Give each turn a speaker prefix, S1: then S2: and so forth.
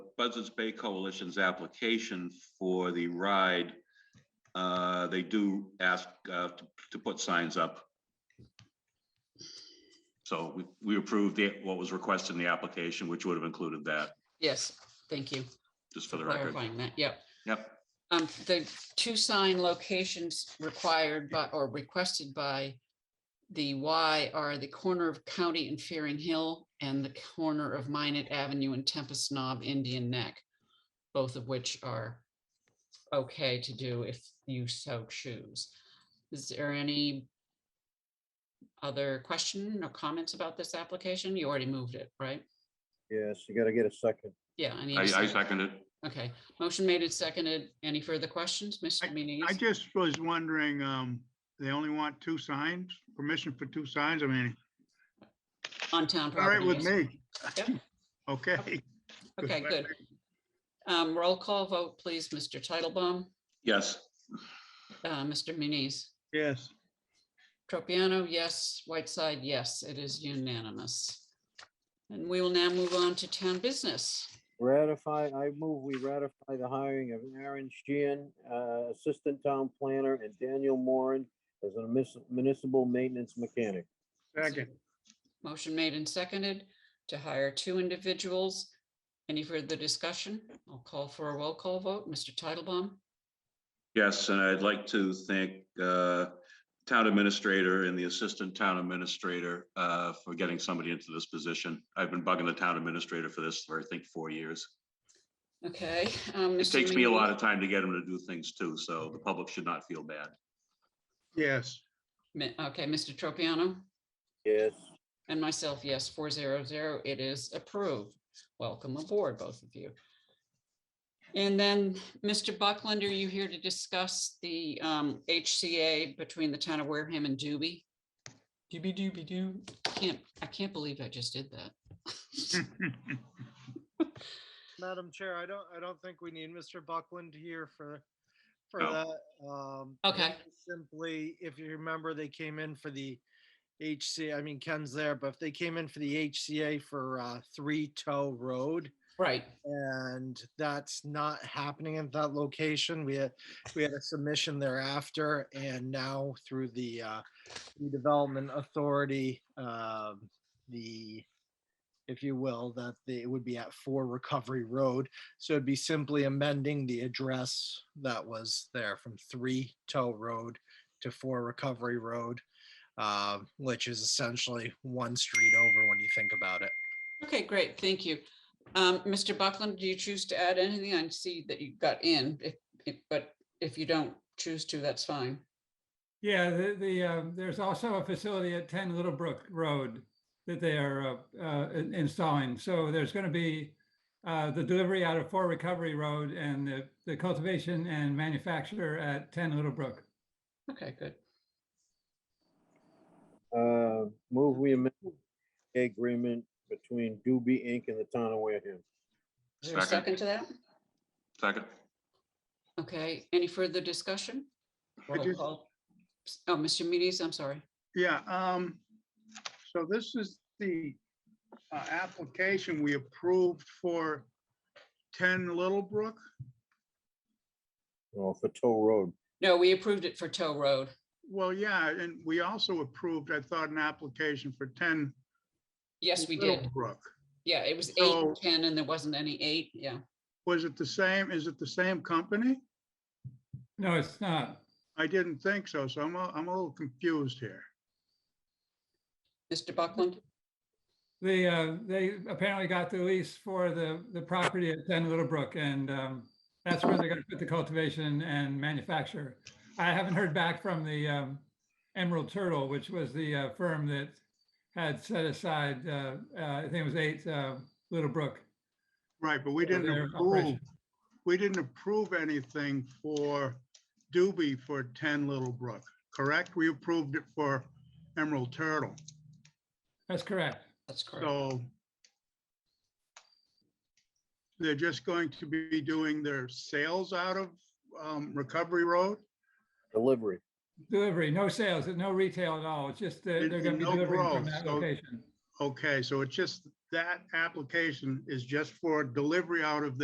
S1: Buzzards Bay Coalition's application for the ride, uh, they do ask uh, to to put signs up. So we we approved it, what was requested in the application, which would have included that,
S2: Yes, thank you
S1: just for
S2: for
S1: the record.
S2: clarifying that. Yep.
S1: Yep,
S2: Um, the two sign locations required by, or requested by the Y are the corner of County and Fearing Hill and the corner of Minot Avenue and Tempest Knob Indian Neck, both of which are okay to do if you so choose. Is there any other question or comments about this application? You already moved it, right?
S3: Yes, you gotta get a second.
S2: Yeah, I need.
S1: I
S2: a
S1: I
S2: second.
S1: second it.
S2: Okay, motion made and seconded. Any further questions, Mr. Muniz?
S4: I just was wondering, um, they only want two signs, permission for two signs, I mean,
S2: On town
S4: all right
S2: property.
S4: with
S2: yes.
S4: me.
S2: Yep.
S4: Okay.
S2: Okay, good. Um, roll call vote, please. Mr. Titlebaum,
S1: Yes,
S2: uh, Mr. Muniz.
S4: Yes,
S2: Tropiano, yes. Whiteside, yes. It is unanimous. And we will now move on to town business.
S3: Ratify, I move we ratify the hiring of Aaron Sheehan, uh, Assistant Town Planner, and Daniel Moran as a munis- municipal maintenance mechanic.
S4: second,
S2: Motion made and seconded to hire two individuals. Any further discussion? I'll call for a roll call vote. Mr. Titlebaum,
S1: yes, and I'd like to thank uh, Town Administrator and the Assistant Town Administrator uh, for getting somebody into this position. I've been bugging the Town Administrator for this for, I think, four years.
S2: okay. um,
S1: It
S2: Mr.
S1: takes me a
S2: Muniz.
S1: lot of time to get them to do things too, so the public should not feel bad.
S4: yes,
S2: Mi- Okay, Mr. Tropiano?
S3: Yes,
S2: And myself, yes, four zero zero, it is approved. Welcome aboard, both of you. And then, Mr. Buckland, are you here to discuss the um, HCA between the town of Wareham and Doobie? Doobie doobie doo. Can't, I can't believe I just did that.
S4: Hmm.
S5: Madam Chair, I don't, I don't think we need Mr. Buckland here for, for
S1: No.
S5: that. Um,
S2: Okay.
S5: Simply, if you remember, they came in for the HC, I mean, Ken's there, but if they came in for the HCA for, uh, Three Toe Road.
S2: Right,
S5: And that's not happening at that location. We had, we had a submission thereafter and now through the, uh, redevelopment authority, um, the, if you will, that the- it would be at four Recovery Road. So it'd be simply amending the address that was there from three Tow Road to four Recovery Road, um, which is essentially one street over when you think about it.
S2: okay, great, thank you. Um, Mr. Buckland, do you choose to add anything? I see that you got in, if- if- but if you don't choose to, that's fine.
S6: Yeah, the, the, uh, there's also a facility at 10 Little Brook Road that they are uh, uh, in- installing. So there's going to be uh, the delivery out of Four Recovery Road and the- the cultivation and manufacture at 10 Little Brook.
S2: Okay, good.
S3: uh, move we amend the agreement between Doobie Inc. and the town of Wareham.
S2: Is there a
S1: Second.
S2: second to that?
S1: Second,
S2: Okay, any further discussion?
S4: I
S2: Roll
S4: just-
S2: call. Oh, Mr. Muniz, I'm sorry.
S4: yeah, um, so this is the uh, application we approved for ten Little Brook.
S3: Oh, for Tow Road.
S2: No, we approved it for Tow Road.
S4: Well, yeah, and we also approved, I thought, an application for ten.
S2: Yes, we
S4: Little
S2: did.
S4: Brook.
S2: Yeah, it was eight
S4: So-
S2: and ten and there wasn't any eight. Yeah.
S4: Was it the same? Is it the same company?
S6: No, it's not.
S4: I didn't think so, so I'm, a- I'm a little confused here.
S2: Mr. Buckland?
S6: The, uh, they apparently got the lease for the, the property at 10 Little Brook and um, that's where they're going to put the cultivation and manufacture. I haven't heard back from the um, Emerald Turtle, which was the uh, firm that had set aside, uh, uh, I think it was eight uh, Little Brook.
S4: Right, but we
S6: for
S4: didn't
S6: their
S4: approve,
S6: operation.
S4: we didn't approve anything for Doobie for 10 Little Brook, correct? We approved it for Emerald Turtle,
S6: That's correct.
S2: That's correct.
S4: so they're just going to be doing their sales out of um, Recovery Road?
S3: Delivery.
S6: Delivery, no sales, no retail at all. It's just that they're going to
S4: No
S6: be delivering from
S4: growth,
S6: that
S4: so-
S6: location.
S4: Okay, so it's just, that application is just for delivery out of